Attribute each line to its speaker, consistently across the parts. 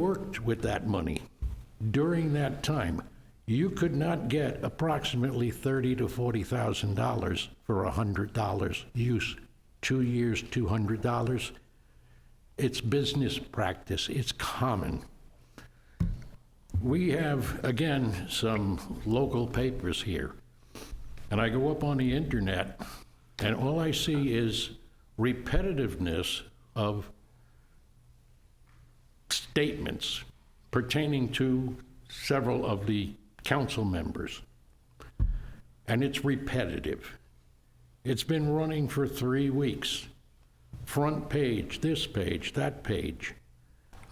Speaker 1: worked with that money during that time, you could not get approximately thirty to forty thousand dollars for a hundred dollars use. Two years, two hundred dollars. It's business practice. It's common. We have, again, some local papers here. And I go up on the internet, and all I see is repetitiveness of statements pertaining to several of the council members. And it's repetitive. It's been running for three weeks. Front page, this page, that page,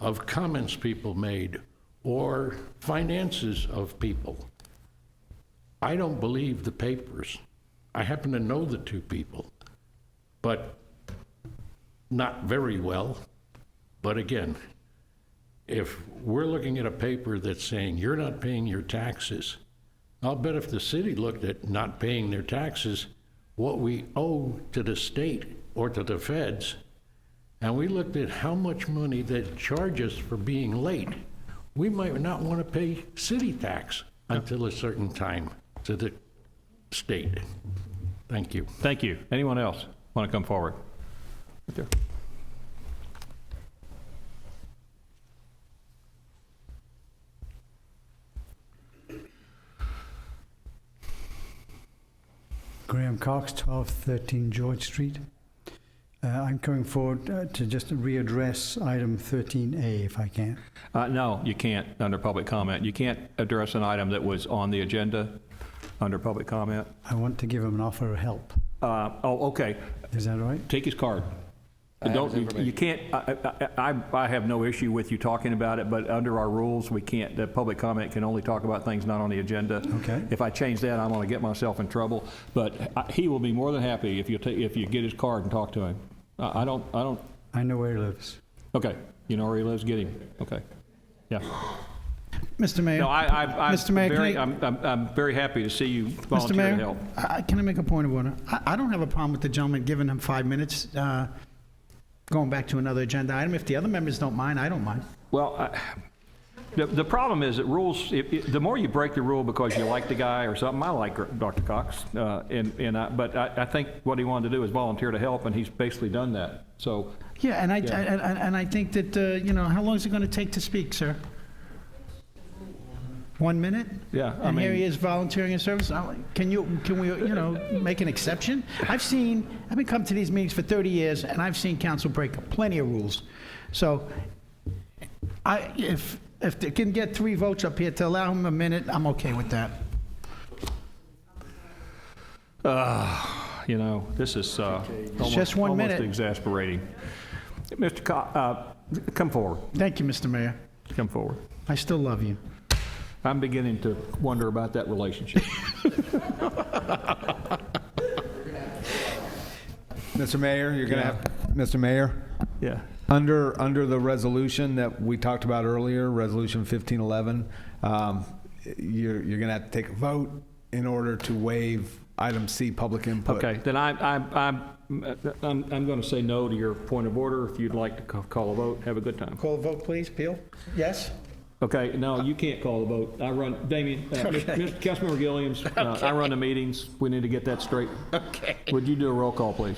Speaker 1: of comments people made or finances of people. I don't believe the papers. I happen to know the two people, but not very well. But again, if we're looking at a paper that's saying you're not paying your taxes, I'll bet if the city looked at not paying their taxes, what we owe to the state or to the feds, and we looked at how much money they charge us for being late, we might not want to pay city tax until a certain time to the state. Thank you.
Speaker 2: Thank you. Anyone else want to come forward? Right there.
Speaker 3: Graham Cox, 1213 George Street. Uh, I'm coming forward uh, to just readdress item 13A if I can.
Speaker 2: Uh, No, you can't, under public comment. You can't address an item that was on the agenda under public comment.
Speaker 3: I want to give him an offer of help.
Speaker 2: Uh, Oh, okay.
Speaker 3: Is that all right?
Speaker 2: Take his card. Don't, you- you can't, I, I- I- I have no issue with you talking about it, but under our rules, we can't, the public comment can only talk about things not on the agenda.
Speaker 3: Okay.
Speaker 2: If I change that, I'm going to get myself in trouble, but I- he will be more than happy if you, ta- if you get his card and talk to him. I I don't, I don't,
Speaker 3: I know where he lives.
Speaker 2: okay, you know where he lives, get him, okay. Yeah.
Speaker 4: Mr. Mayor?
Speaker 2: No, I, I, I'm
Speaker 4: Mr. Mayor, can
Speaker 2: very,
Speaker 4: I-
Speaker 2: I'm, I'm, I'm very happy to see you
Speaker 4: Mr.
Speaker 2: volunteer to
Speaker 4: Mayor,
Speaker 2: help.
Speaker 4: I- I- can I make a point of order? I I don't have a problem with the gentleman giving him five minutes, uh, going back to another agenda item. If the other members don't mind, I don't mind.
Speaker 2: Well, I, the, the problem is that rules, if, if- the more you break the rule because you like the guy or something, I like Dr. Cox, uh, and, and I, but I, I think what he wanted to do is volunteer to help, and he's basically done that. So,
Speaker 4: Yeah, and I, and- and and I think that, uh, you know, how long is it going to take to speak, sir? One minute?
Speaker 2: Yeah, I
Speaker 4: And here
Speaker 2: mean-
Speaker 4: he is volunteering his service? I'm like, Can you, can we, you know, make an exception? I've seen, I've been coming to these meetings for 30 years, and I've seen council break plenty of rules. So I, if, if they can get three votes up here to allow him a minute, I'm okay with that.
Speaker 2: you know, this is, uh, almost,
Speaker 4: just one
Speaker 2: almost
Speaker 4: minute.
Speaker 2: exasperating. Mr. Cox, uh, come forward,
Speaker 4: Thank you, Mr. Mayor.
Speaker 2: come forward.
Speaker 4: I still love you.
Speaker 2: I'm beginning to wonder about that relationship.
Speaker 5: Mr. Mayor, you're gonna have, Mr. Mayor,
Speaker 2: Yeah.
Speaker 5: under, under the resolution that we talked about earlier, Resolution 1511, um, you're, you're gonna have to take a vote in order to waive item C, public input.
Speaker 2: Okay, then I, I, I'm, I'm, I'm going to say no to your point of order. If you'd like to ca- call a vote, have a good time.
Speaker 4: Call a vote, please, Peel? Yes?
Speaker 2: Okay, no, you can't call the vote. I run, Damien, uh, Mr. Councilmember Gilliams, uh, I run the meetings. We need to get that straight. Okay. Would you do a roll call, please?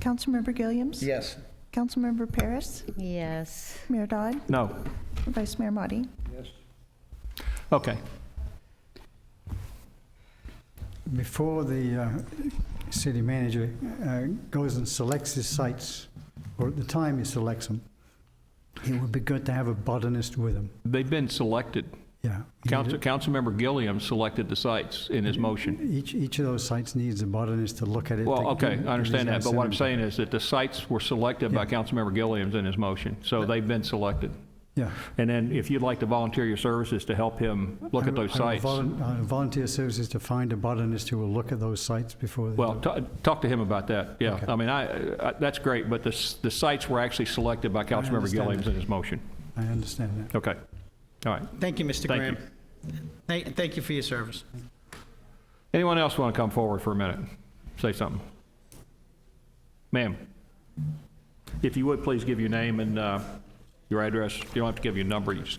Speaker 6: Councilmember Gilliams?
Speaker 4: Yes.
Speaker 6: Councilmember Paris?
Speaker 7: Yes.
Speaker 6: Mayor Dodd?
Speaker 2: No.
Speaker 6: Vice Mayor Motti?
Speaker 2: Okay.
Speaker 3: Before the uh, city manager uh, goes and selects his sites, or at the time he selects them, it would be good to have a botanist with him.
Speaker 2: They've been selected.
Speaker 3: Yeah.
Speaker 2: Council, Councilmember Gilliam selected the sites in his motion.
Speaker 3: Each, each of those sites needs a botanist to look at it.
Speaker 2: Well,
Speaker 3: to
Speaker 2: okay,
Speaker 3: give-
Speaker 2: I understand
Speaker 3: give
Speaker 2: that,
Speaker 3: his
Speaker 2: but what I'm
Speaker 3: assessment.
Speaker 2: saying is that the sites were selected by Councilmember Gilliam's in his motion, so they've been selected.
Speaker 3: Yeah.
Speaker 2: And then if you'd like to volunteer your services to help him look at
Speaker 3: I will-
Speaker 2: those
Speaker 3: I will
Speaker 2: sites.
Speaker 3: volun- I will Volunteer services to find a botanist who will look at those sites before. they
Speaker 2: Well,
Speaker 3: do.
Speaker 2: ta- talk to him about that, yeah. I mean, I, I- that's great, but the, s- the sites were actually selected by Councilmember
Speaker 3: understand
Speaker 2: Gilliams
Speaker 3: that.
Speaker 2: in his motion.
Speaker 3: I understand that.
Speaker 2: Okay, all right.
Speaker 4: Thank you, Mr.
Speaker 2: Thank you.
Speaker 4: Graham. Thank, thank you for your service.
Speaker 2: Anyone else want to come forward for a minute? Say something. Ma'am, if you would, please give your name and uh, your address. You don't have to give your number, you just give